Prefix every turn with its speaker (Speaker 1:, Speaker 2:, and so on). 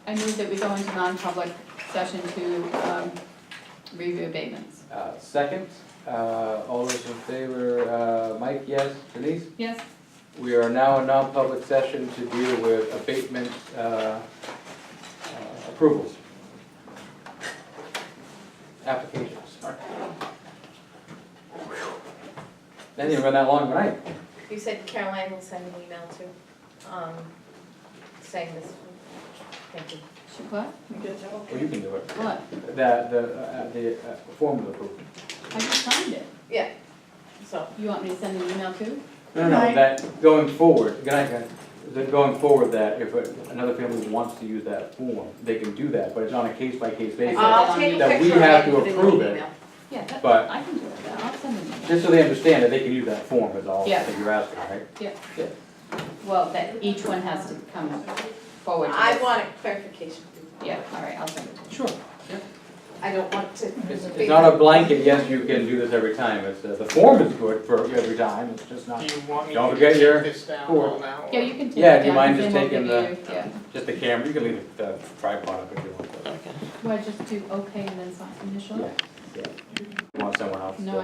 Speaker 1: I move that we go into non-public session to um, review abatements.
Speaker 2: Uh, Second, uh, all those in favor, uh, Mike, yes, Denise?
Speaker 1: Yes?
Speaker 2: We are now in non-public session to deal with abatement uh, uh, approvals. Applications, sorry. That didn't run that long, right?
Speaker 3: You said Caroline will send an email to, um, saying this, thank you.
Speaker 1: She- What?
Speaker 2: Well, you can do it.
Speaker 1: What?
Speaker 2: The, the, uh, the uh, formal approval.
Speaker 1: I just signed it.
Speaker 3: Yeah, so,
Speaker 1: You want me to send an email too?
Speaker 2: No, no,
Speaker 4: Right.
Speaker 2: that, going forward, good night, guys. That going forward, that if another family wants to use that form, they can do that, but it's on a case-by-case basis.
Speaker 1: Uh,
Speaker 3: I'll take a
Speaker 2: That we
Speaker 3: picture of
Speaker 2: have
Speaker 3: it
Speaker 2: to
Speaker 3: and put it in
Speaker 2: approve
Speaker 3: the
Speaker 2: it.
Speaker 3: email.
Speaker 1: Yeah, that,
Speaker 2: But-
Speaker 1: I can do it, I'll send an email.
Speaker 2: Just so they understand that they can use that form is all
Speaker 1: Yeah.
Speaker 2: that you're asking, right?
Speaker 1: Yeah. Well, that each one has to come forward to
Speaker 3: I
Speaker 1: this.
Speaker 3: want a clarification.
Speaker 1: Yeah, all right, I'll send it to you.
Speaker 2: Sure.
Speaker 3: I don't want to.
Speaker 2: It's, it's not a blanket, yes, you can do this every time, it's, uh, the form is good for every time, it's just
Speaker 5: Do
Speaker 2: not,
Speaker 5: you want me
Speaker 2: Don't
Speaker 5: to
Speaker 2: forget
Speaker 5: take
Speaker 2: your
Speaker 5: this down
Speaker 2: cord.
Speaker 5: all now?
Speaker 1: Yeah, you can take it
Speaker 2: Yeah, do you
Speaker 1: down,
Speaker 2: mind
Speaker 1: because
Speaker 2: just
Speaker 1: they won't
Speaker 2: taking
Speaker 1: give you- Yeah,
Speaker 2: just the camera, you can leave the tripod up if you want.
Speaker 1: well, just do okay and then sign initial.
Speaker 2: Yeah, yeah. You Want someone else to-
Speaker 1: No,